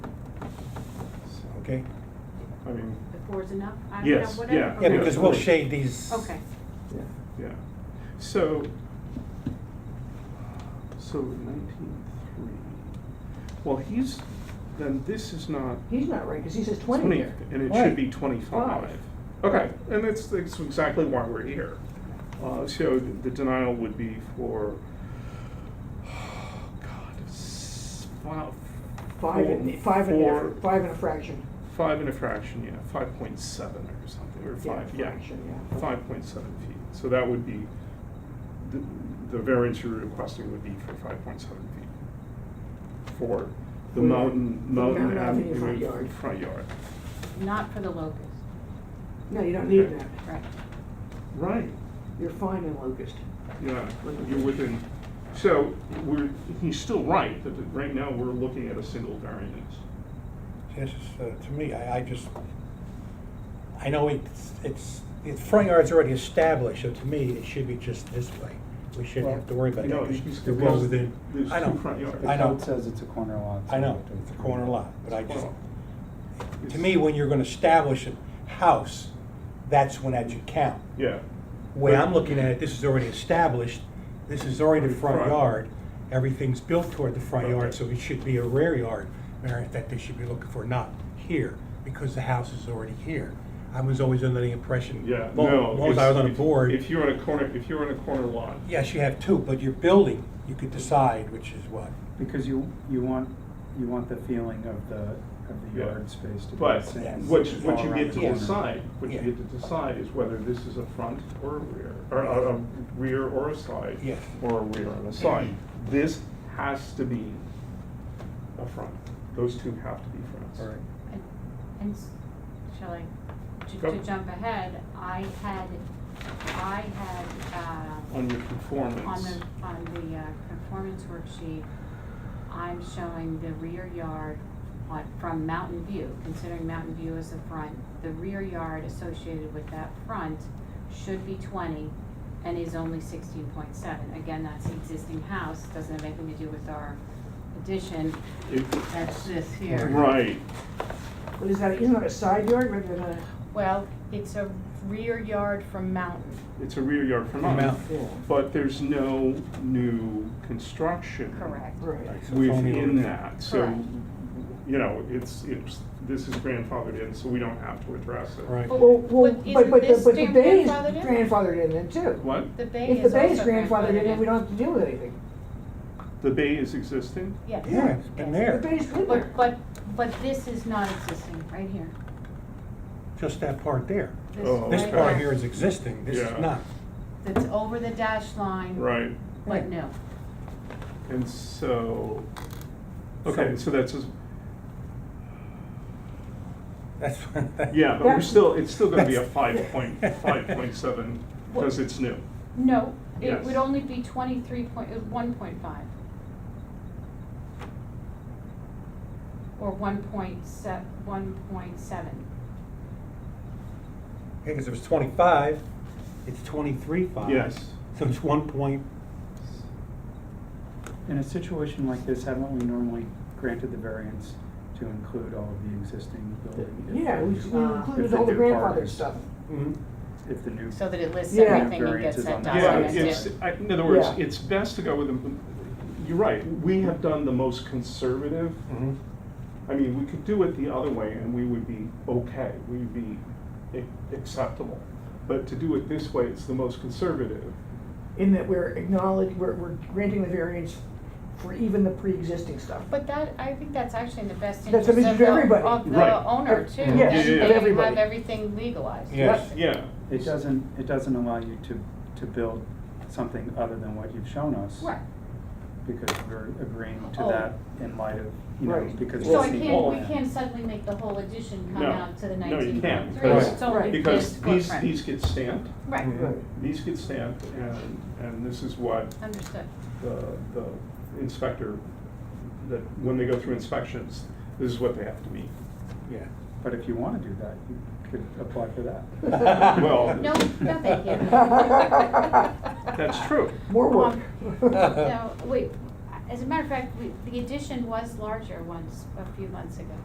okay? I mean, If four is enough? I mean, Yes, whatever. yeah. Yeah, Okay. because we'll shade these. Okay, Yeah. yeah. So, so nineteen three. Well, he's, then this is not He's not right, because he says twenty twenty, here. and it Right. should be twenty-five. Okay, and that's, that's exactly why we're here. Uh, so the denial would be for, God, s- wow, Five four- and, five and, a four- half- five and a fraction. Five and a fraction, yeah, five point seven or something, or five, yeah. Fraction, yeah. Five point seven feet, so that would be, the, the variance you're requesting would be for five point seven feet. For the For mountain, the mountain Mountain Avenue avenue front yard. front yard. not for the locust, No, you don't need Okay. that. right. Right, You're fine in locust. yeah, you're within, so we're, he's still right, that right now we're looking at a single variance. This is, uh, to me, I, I just, I know it's, it's, the front yard's already established, so to me, it should be just this way. We shouldn't have to worry about No, that, it's- because they're well within, there's I two front know, yards. I The know, code says it's a corner lot. so I you know, have to- it's a corner lot, but I just, Well, to me, when you're gonna establish a house, that's when that should count. Yeah, way I'm looking at it, this is already established, this is already the front Right. yard, everything's built toward the front yard, Okay. so it should be a rear yard variance that they should be looking for, not here, because the house is already here. I was always under the impression, yeah, long no. long as I it's- was on the if- board, If you're on a corner, if you're on a corner lot, yes, you have two, but you're building, you could decide which is what. Because you, you want, you want the feeling of the, of the Yeah. yard space to be the But same. Yes. as what, the what wall you around get the to corner. decide, what you Yeah. get to decide is whether this is a front or a rear, or a, a rear or a side. Yes. Or a rear and a side. This has to be a front. Those two have to be fronts. All right. And- And, s- shall I, to, Go. to jump ahead, I had, I had, uh, On your on conformance. the, on the uh, conformance worksheet, I'm showing the rear yard on, from Mountain View, considering Mountain View as the front, the rear yard associated with that front should be twenty and is only sixteen point seven. Again, that's the existing house, doesn't have anything to do with our addition, It- that's this here. Right, But is that, isn't that a side yard rather than a, Well, it's a rear yard from mountain. it's a rear yard front. Mountain. But there's no new construction. right? So it's only within limited. that, so, Correct. you know, it's, it's, this is grandfathered in, so we don't have to address it. Right. Well, well, But but, but, the- isn't but the this bay is grandfathered in? grandfathered in then too. What? The bay If the is also grandfathered in. bay is grandfathered in, then we don't have to deal with anything. The bay is existing? Yes. Yeah, it's been Yes. The there, bay's been there. But, but, but this is not existing, right here. just that part there. This Oh, This right part here. here is existing, this Yeah. is not. That's over the dash line. Right, But no, and so, okay, so that's, just- That's, yeah, but we're That- still, it's still gonna be a that's- five point, five point seven, because it's new. no, it Yes. would only be twenty-three point, one point five. Or one point se- one point seven. because it was twenty-five, it's twenty-three five. Yes. So it's one point In a situation like this, haven't we normally granted the variance to include all of the existing building? if Yeah, we the- we Uh, included if all the new part grandfathered is- stuff. mhm. If the new, So that it lists Yeah. everything and gets Variances that on that. Yeah, documented. it's, I- in other words, Yeah. it's best to go with, the- you're right, we have done the most conservative Mm-hmm. Mhm. I mean, we could do it the other way and we would be okay, we'd be a- acceptable. But to do it this way, it's the most conservative. In that we're acknowledging, we're, we're granting the variance for even the pre-existing stuff. But that, I think that's actually in the best That's interest a of message to the, everybody. of Right. the owner too, Yeah, and yeah, yeah. they have Everybody. everything legalized. Yes. Yeah, it doesn't, it doesn't allow you to, to build something other than what you've shown us. Right, Because we're agreeing to Oh. that in light of, you know, Right. because. so we've I seen can't, all we that. can't suddenly make the whole edition come No. out to the No, you nineteen can't, point three, it's because- only Right. this because these, footprint. these get stamped, Right, Mhm. these get stamped and, and this is what understood, the, the inspector, that when they go through inspections, this is what they have to meet. Yeah. But if you wanna do that, you could apply for that. Well- no, no, thank you. That's true. More work. Um, No, wait, as a matter of fact, we, the edition was larger once, a few months ago.